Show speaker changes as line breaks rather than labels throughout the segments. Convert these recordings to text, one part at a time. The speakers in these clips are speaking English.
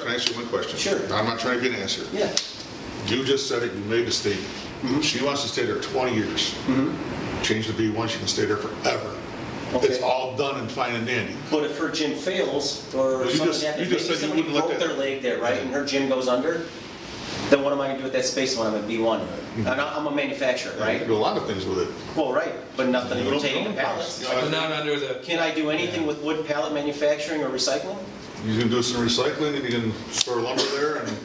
can answer one question.
Sure.
I'm not trying to get an answer.
Yeah, Mm-hmm.
You just said it, you made a statement. She wants to stay there 20 years. Change the B1, she can stay there forever. It's
Okay.
all done and fine and dandy.
but if her gym fails or
you
something
just-
happens,
you
maybe
just said you
somebody
wouldn't let
broke
that-
their leg there, right, and her gym goes under, then what am I gonna do with that space when I'm at B1? And I- I'm a manufacturer,
You can
right?
do a lot of things with it.
Well, right, but nothing
You don't
pertaining to
own
pallets.
pallets.
But not under the,
Can I do anything with wood pallet manufacturing or recycling
You can do some recycling, and you can store lumber there, and,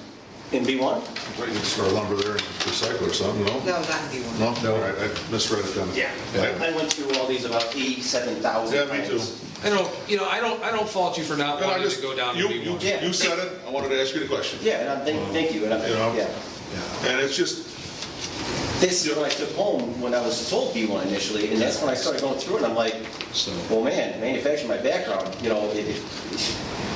in B1?
well, you can store lumber there and recycle or something, no?
No, not in B1.
No? All right, I misread it then.
I went through all these about 87,000
Yeah,
times.
me too.
I don't, you know, I don't, I don't fault you for not
And I
wanting
just,
to go down to
you, you,
B1.
Yeah.
you said it, I wanted to ask you the question.
Yeah, and I'm, thank, thank you, and I'm,
You know?
yeah.
And it's just,
This is what I took home when I was told B1 initially, and that's when I started going through it, and I'm like, well, man, manufacturing my background, you know, it, it-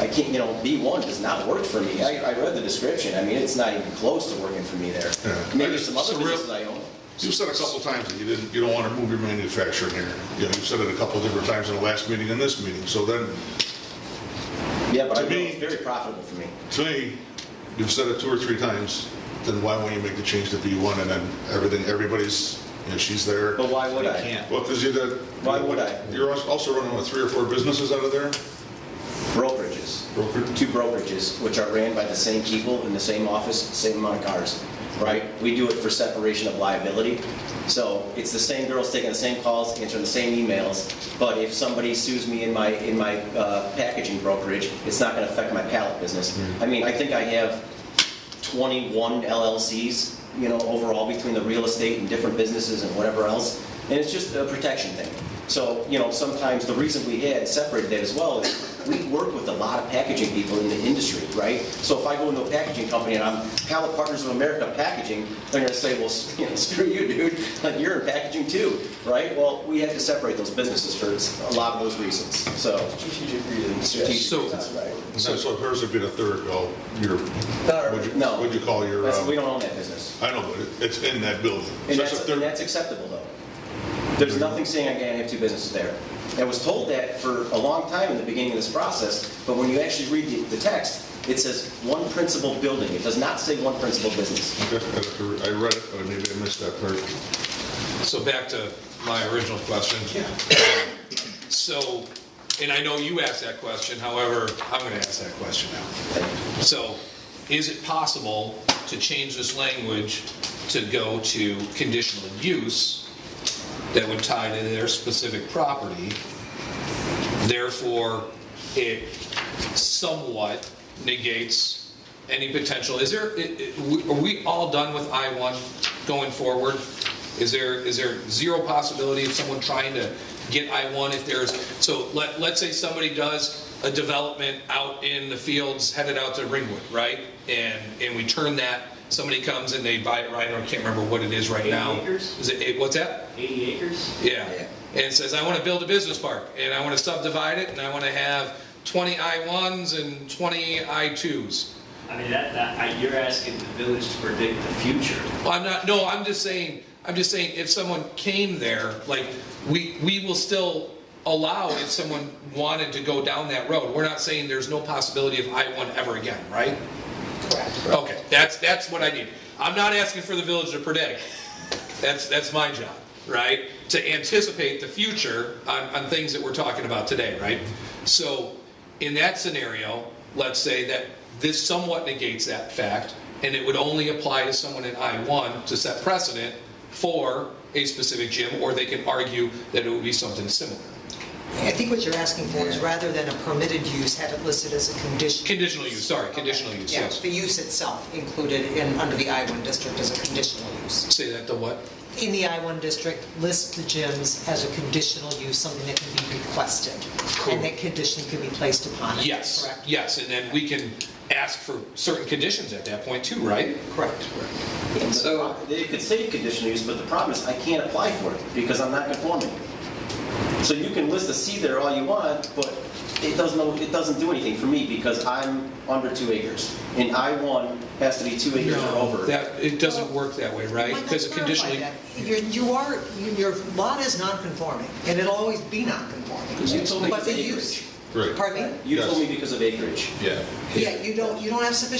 I can't, you know, B1 does not work for me. I, I read the description, I mean, it's not even close to working for me there.
Yeah.
Maybe some other
It's a real-
businesses I own.
you said a couple times that you didn't, you don't want to move your manufacturing here. You know, you've said it a couple different times in the last meeting and this meeting, so then,
Yeah, but I
To
know
me-
it's very profitable for me.
to me, you've said it two or three times, then why won't you make the change to B1 and then everything, everybody's, you know, she's there.
But why would I?
Well, because you did.
Why would I?
You're als- also running with three or four businesses out of there?
Brokerages.
Brokerage?
two brokerages, which are ran by the same people in the same office, same amount of cars, right? We do it for separation of liability. So it's the same girls taking the same calls, answering the same emails. But if somebody sues me in my, in my uh, packaging brokerage, it's not going to affect my pallet business. I mean, I think I have 21 LLCs, you know, overall between the real estate and different businesses and whatever else. And it's just a protection thing. So, you know, sometimes the reason we had separated that as well is we work with a lot of packaging people in the industry, right? So if I go into a packaging company and I'm Pallet Partners of America Packaging, they're gonna say, well, s- you know, screw you, dude, like you're in packaging too, right? Well, we had to separate those businesses for a lot of those reasons, so. Strategic reasons.
So-
right.
So so hers would be the third, well, your, what'd you-
No.
what'd you call your?
That's-
um,
We don't own that business.
I know, but it- it's in that building.
And
So that's
that's,
a third-
and that's acceptable, though. There's nothing saying I can't have two businesses there. I was told that for a long time in the beginning of this process, but when you actually read the, the text, it says one principal building. It does not say one principal business.
That's- that's the- I read it, but maybe I missed that part.
So back to my original question. So, and I know you asked that question, however, I'm gonna ask that question now. So, is it possible to change this language to go to conditional use that would tie to their specific property? Therefore, it somewhat negates any potential, is there, i- i- we- are we all done with I-1 going forward? Is there, is there zero possibility of someone trying to get I-1 if there's, so let, let's say somebody does a development out in the fields headed out to Ringwood, right? And, and we turn that, somebody comes and they buy it right, I can't remember what it is right now.
Eight acres?
Is it, eight- what's that?
80 acres?
Yeah, and it says, I want to build a business park, and I want to subdivide it, and I want to have 20 I-1s and 20 I-2s.
I mean, that, that, I- you're asking the village to predict the future.
Well, I'm not, no, I'm just saying, I'm just saying, if someone came there, like, we, we will still allow if someone wanted to go down that road. We're not saying there's no possibility of I-1 ever again, right? Correct. Okay, that's, that's what I need. I'm not asking for the village to predict. That's, that's my job, right? To anticipate the future on, on things that we're talking about today, right? So, in that scenario, let's say that this somewhat negates that fact, and it would only apply to someone in I-1 to set precedent for a specific gym, or they can argue that it would be something similar.
I think what you're asking for is rather than a permitted use, have it listed as a condition.
Conditional use, sorry, conditional use,
Yeah,
yes.
The use itself included in, under the I-1 district as a conditional use.
Say that the what?
In the I-1 district, list the gyms as a conditional use, something that can be requested.
Cool.
And that condition can be placed upon it.
Yes,
Correct?
yes, and then we can ask for certain conditions at that point too, right?
Correct.
And the
So-
pro- They could say conditional use, but the problem is I can't apply for it because I'm not conforming. So you can list a C there all you want, but it doesn't, it doesn't do anything for me because I'm under two acres. And I-1 has to be two acres or over.
That, it doesn't work that way, right?
Why not
Because
clarify
conditionally,
that? You're, you are, your lot is non-conforming, and it'll always be non-conforming.
You told me
But
it's
the
acreage.
use,
Right.
Pardon me?
You told me
Yes.
because of acreage.
Yeah.
Yeah, you don't, you don't have sufficient